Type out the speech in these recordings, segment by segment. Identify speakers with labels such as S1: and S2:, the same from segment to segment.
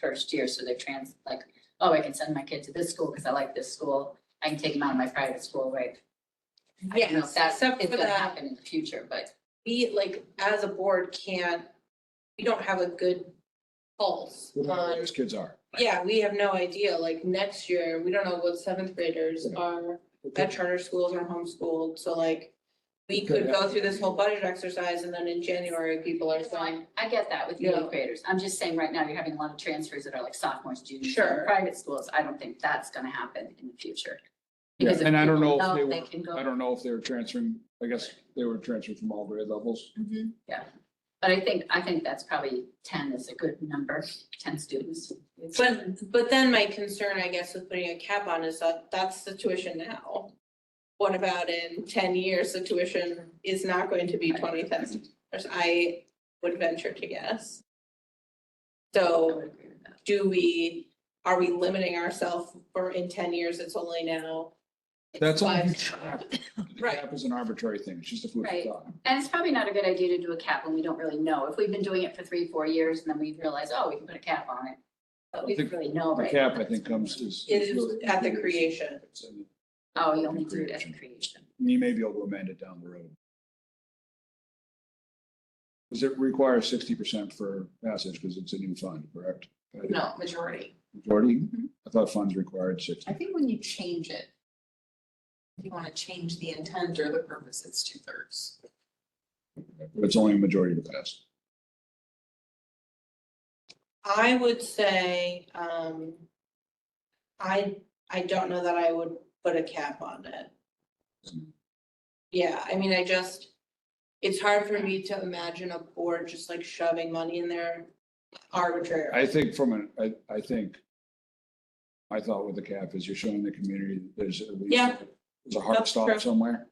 S1: first year, so they're trans, like, oh, I can send my kid to this school because I like this school. I can take them out of my private school, right? I don't know if
S2: Yes,
S1: that is
S2: except for
S1: gonna
S2: that,
S1: happen in the future, but
S2: we like, as a board can't, we don't have a good pulse
S3: Well,
S2: on,
S3: Those kids are.
S2: yeah, we have no idea, like next year, we don't know what seventh graders are at charter schools or homeschooled, so like, we could go through this whole budget exercise and then in January, people are
S1: So I,
S2: saying,
S1: I get that with the
S2: Yeah.
S1: eighth graders. I'm just saying right now, you're having a lot of transfers that are like sophomores, juniors. in
S2: Sure.
S1: Private schools, I don't think that's gonna happen in the future.
S3: Yeah,
S1: Because if
S3: and I don't
S1: people
S3: know if they
S1: They
S3: were-
S1: can
S3: I
S1: go,
S3: don't know if they were transferring, I guess they were transferred from all grade levels.
S1: but I think, I think that's probably ten is a good number, ten students.
S2: but, but then my concern, I guess, with putting a cap on is that that's the tuition now. What about in ten years, the tuition is not going to be twenty thousand dollars, I would venture to guess.
S1: I
S2: So
S1: would agree with that.
S2: do we, are we limiting ourselves for in ten years, it's only now? it's
S3: That's all.
S2: five-
S3: The
S2: Right.
S3: cap is an arbitrary thing. It's just a food for
S1: Right.
S3: thought.
S1: And it's probably not a good idea to do a cap when we don't really know. If we've been doing it for three, four years and then we realize, oh, we can put a cap on it. But we
S3: I think
S1: don't really know,
S3: The
S1: right?
S3: cap,
S1: now.
S3: I think, comes is.
S2: It is at the creation.
S3: It's in-
S1: Oh, you only do it as a creation.
S3: You may be able to amend it down the road. Does it require sixty percent for passage because it's a new fund, correct?
S2: No, Mm-hmm. majority.
S3: Majority?
S4: Mhm.
S3: I thought funds required sixty.
S4: I think when you change it, if you want to change the intent or the purpose, it's two thirds.
S3: But it's only a majority to pass.
S2: I would say, um, I, I don't know that I would put a cap on it. Yeah, I mean, I just, it's hard for me to imagine a board just like shoving money in there arbitrarily.
S3: I think from an, I, I think, my thought with the cap is you're showing the community that there's at least.
S2: Yeah.
S3: There's a hard
S2: That's true.
S3: stop somewhere.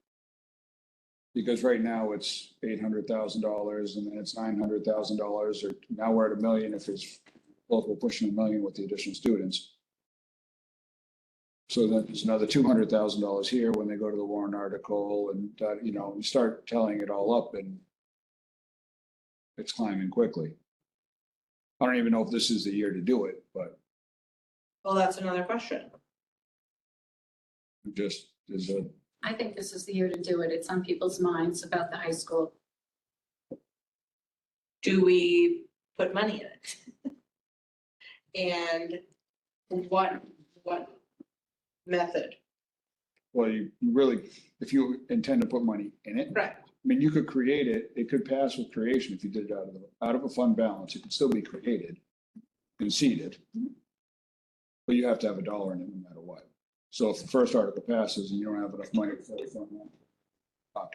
S3: Because right now it's eight hundred thousand dollars and then it's nine hundred thousand dollars or now we're at a million if it's, well, we're pushing a million with the additional students. So then there's another two hundred thousand dollars here when they go to the Warren article and, uh, you know, you start telling it all up and it's climbing quickly. I don't even know if this is the year to do it, but
S2: Well, that's another question.
S3: it just is a,
S1: I think this is the year to do it. It's on people's minds about the high school.
S2: do we put money in it? And what, what method?
S3: well, you you really, if you intend to put money in it.
S2: Right.
S3: I mean, you could create it, it could pass with creation if you did it out of the, out of a fund balance, it could still be created, conceded. But you have to have a dollar in it no matter what. So if the first article passes and you don't have enough money for the fund, balance,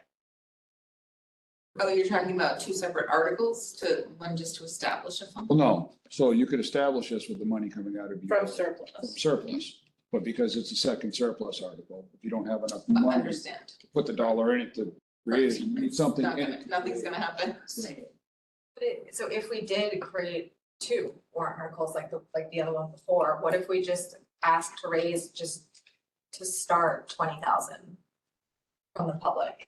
S4: Oh, you're talking about two separate articles to, one just to establish a fund?
S3: well, no, so you could establish this with the money coming out of your
S2: From surplus.
S3: surplus. But because it's a second surplus article, if you don't have enough
S4: I
S3: money to
S4: Understand.
S3: put the dollar in it to create it, you need something
S4: Not
S3: in
S4: gonna-
S3: it.
S4: Nothing's gonna happen.
S5: But it, so if we did create two warrant articles like the, like the other one before, what if we just asked to raise just to start twenty thousand from the public?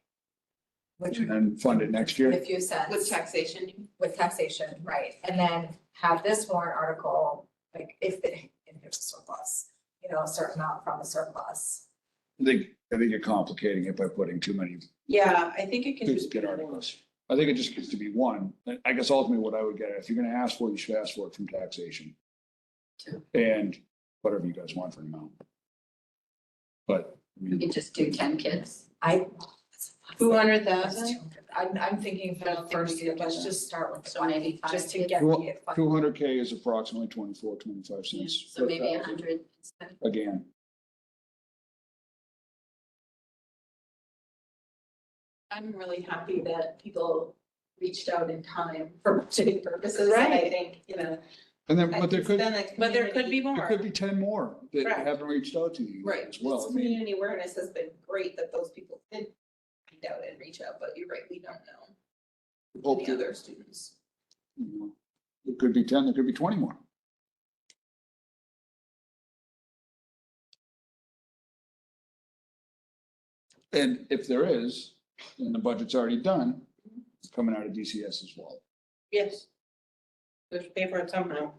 S5: Which
S3: And
S5: would
S3: then fund it next year.
S5: make a few cents.
S4: With taxation,
S5: With taxation, right, and then have this warrant article, like if it, if there's a surplus, you know, a certain amount from the surplus.
S3: I think, I think you're complicating it by putting too many
S2: Yeah, I think it can just be
S3: duplicate
S2: one.
S3: articles. I think it just gets to be one. I- I guess ultimately what I would get, at, if you're gonna ask for it, you should ask for it from taxation.
S1: Sure.
S3: And whatever you guys want for an amount. But, I
S1: You
S3: mean,
S1: can just do ten kids.
S5: I.
S2: Two hundred
S5: That's
S2: thousand?
S5: two hundred. I'm, I'm thinking
S4: I
S5: for
S4: don't
S5: the
S4: think we
S5: first,
S4: could do
S5: let's
S4: that.
S5: just start with
S1: So
S5: twenty,
S1: maybe five
S5: just to
S1: kids.
S5: get
S3: Well,
S5: the.
S3: two hundred K is approximately 24, 25 cents.
S1: So
S3: per
S1: maybe a
S3: thousand.
S1: hundred.
S3: Again,
S2: I'm really happy
S4: that people reached out in time for budgeting purposes.
S2: and I
S4: think, you know.
S3: and then, but there could, there
S2: But there could be more.
S3: could be ten more that
S2: Correct.
S3: haven't reached out to you
S4: Right.
S3: as well. I mean,
S4: Community awareness has been great that those people did find out and reach out, but you're right, we don't know
S3: hope
S4: the
S3: that,
S4: other students.
S3: you know, it could be ten, there could be twenty more. And if there is, and the budget's already done, it's coming out of DCS as well.
S2: Yes. There's paper somehow.